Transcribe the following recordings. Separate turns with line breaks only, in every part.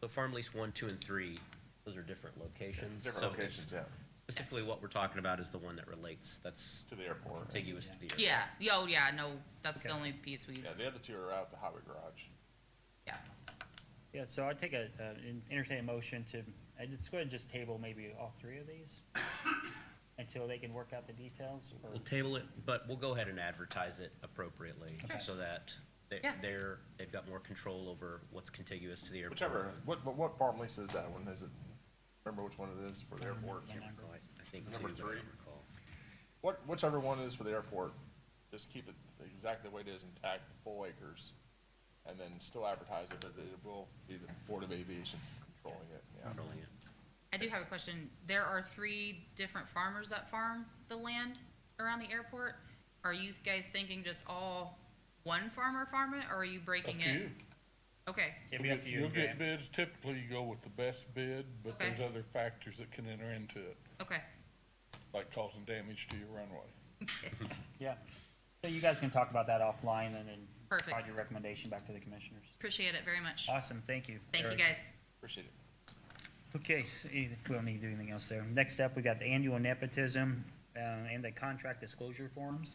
So farm lease one, two, and three, those are different locations.
Different
So
locations, yeah,
Specifically,
Yes.
what we're talking about is the one that relates, that's
to the airport.
contiguous to the area.
Yeah, yo, yeah, no, that's the
Okay.
only piece we,
Yeah, the other two are out at the highway garage.
yeah.
Yeah, so I'd take a, uh, en- entertain a motion to, i just go ahead and just table maybe all three of these until they can work out the details or,
We'll table it, but we'll go ahead and advertise it appropriately
Sure.
so that they-
Yeah.
they're, they've got more control over what's contiguous to the airport.
Whichever, what, what- what farm lease is that one? Is it, remember which one it is for the
Um,
I don't
airport?
remember.
I think two,
Number
but I don't
three.
recall.
What, whichever one it is for the airport, just keep it exactly the way it is intact, full acres. And then still advertise it, but it will be the Board of Aviation controlling it, yeah.
Controlling it.
I do have a question. There are three different farmers that farm the land around the airport. Are you guys thinking just all one farmer farm it, or are you breaking
Up to
it?
you.
Okay,
it'd be up to you
You'll
and Graham.
get bids, typically you go with the best bid, but
Okay.
there's other factors that can enter into it,
okay.
like causing damage to your runway.
Yeah. So you guys can talk about that offline and then provide
Perfect.
your recommendation back to the commissioners.
Appreciate it very much.
Awesome, thank you.
Thank you,
Eric.
guys.
Appreciate it.
Okay, so any- we don't need to do anything else there. Next up, we got the annual nepotism uh, and the contract disclosure forms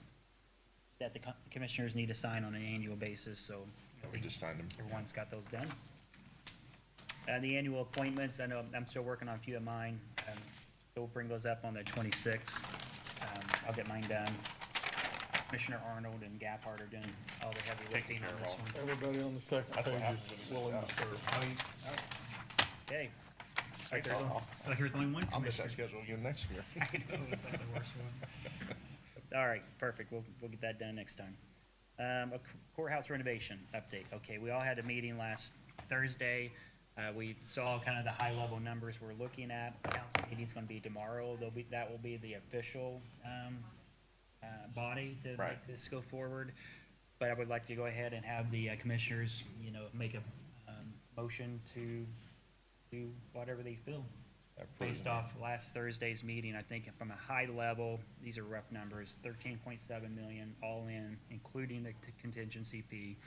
that the co- commissioners need to sign on an annual basis, so
We just signed them.
everyone's got those done. Uh, the annual appointments, I know I'm still working on a few of mine. Um, so we'll bring those up on the 26th. Um, I'll get mine done. Commissioner Arnold and Gaphard are doing all the heavy
Taking
lifting on
care of
this
all.
one.
Everybody on the second
That's what page is happens when it willing to
serve.
Okay.
Thanks, I'll,
Like there's only one
I'll miss that schedule again next year.
All right, perfect. We'll, we'll get that done next time. Um, a courthouse renovation update. Okay, we all had a meeting last Thursday. Uh, we saw kind of the high level numbers we're looking at. Council meeting's gonna be tomorrow. There'll be, that will be the official, um, uh, body to make
Right.
this go forward. But I would like to go ahead and have the uh, commissioners, you know, make a, um, motion to do whatever they feel based off last Thursday's meeting, I think from a high level, these are rough numbers, thirteen point seven million all in, including the t- contingency fee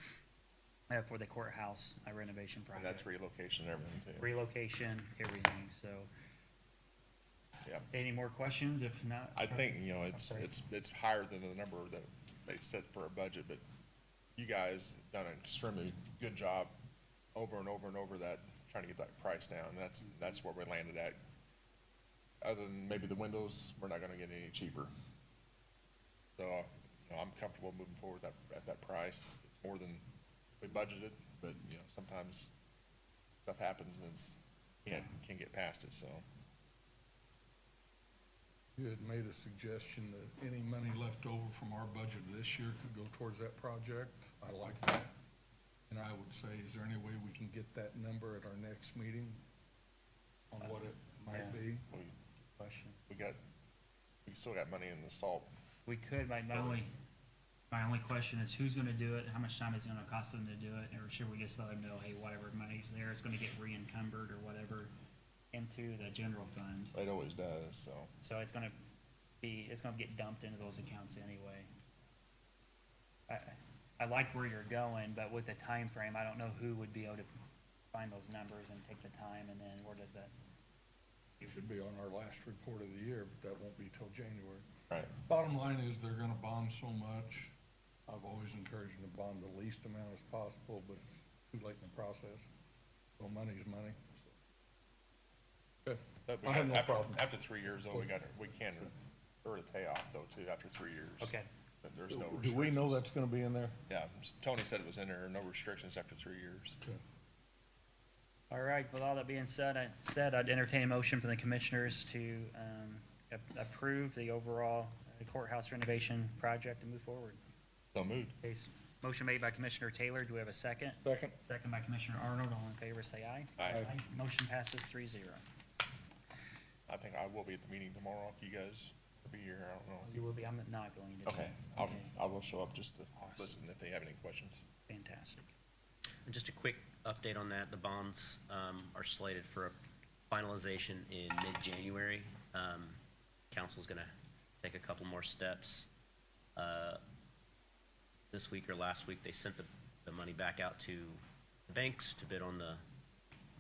uh, for the courthouse uh, renovation
And
project.
that's relocation and everything too.
Relocation, everything, so.
Yeah.
Any more questions? If not.
I think, you know, it's,
sorry.
it's, it's higher than the number that they set for a budget, but you guys done an extremely good job over and over and over that, trying to get that price down. That's, that's where we landed at. Other than maybe the windows, we're not gonna get any cheaper. So, you know, I'm comfortable moving forward at, at that price. It's more than we budgeted, but, you know, sometimes stuff happens and it's, can't, can't get past it, so.
You had made a suggestion that any money left over from our budget this year could go towards that project. I like that. And I would say, is there any way we can get that number at our next meeting on what it might
Yeah.
be?
We,
Question.
we got, we still got money in the salt
We could, my, my only, my only question is who's gonna do it, how much time is it gonna cost them to do it, or should we just let them know, hey, whatever money's there, it's gonna get re-encumbered or whatever into the general fund?
It always does, so.
So it's gonna be, it's gonna get dumped into those accounts anyway. I, I like where you're going, but with the time frame, I don't know who would be able to find those numbers and take the time, and then where does that?
It should be on our last report of the year, but that won't be till January.
Right.
Bottom line is they're gonna bond so much. I've always encouraged them to bond the least amount as possible, but it's too late in the process. So money's money. Okay.
But we
I
got-
have no
after-
problem.
After three years, though, we got, we can, or the payoff though, too, after three years.
Okay,
But there's no
Do we
restrictions.
know that's gonna be in there?
Yeah, Tony said it was in there, no restrictions after three years.
all right, with all that being said, I said I'd entertain a motion from the commissioners to, um, a- approve the overall uh, courthouse renovation project and move forward.
So moved.
Okay, s- motion made by Commissioner Taylor, do we have a second?
Second.
Second by Commissioner Arnold, all in favor, say aye.
Aye.
Motion passes three zero.
I think I will be at the meeting tomorrow, if you guys will be here, I don't know.
You will be, I'm not going to.
Okay, I'll, I will show up just to
Awesome.
listen if they have any questions.
Fantastic.
And just a quick update on that, the bonds um, are slated for a finalization in mid-January. Um, Council's going to take a couple more steps. Uh, This week or last week, they sent the, the money back out to the banks to bid on the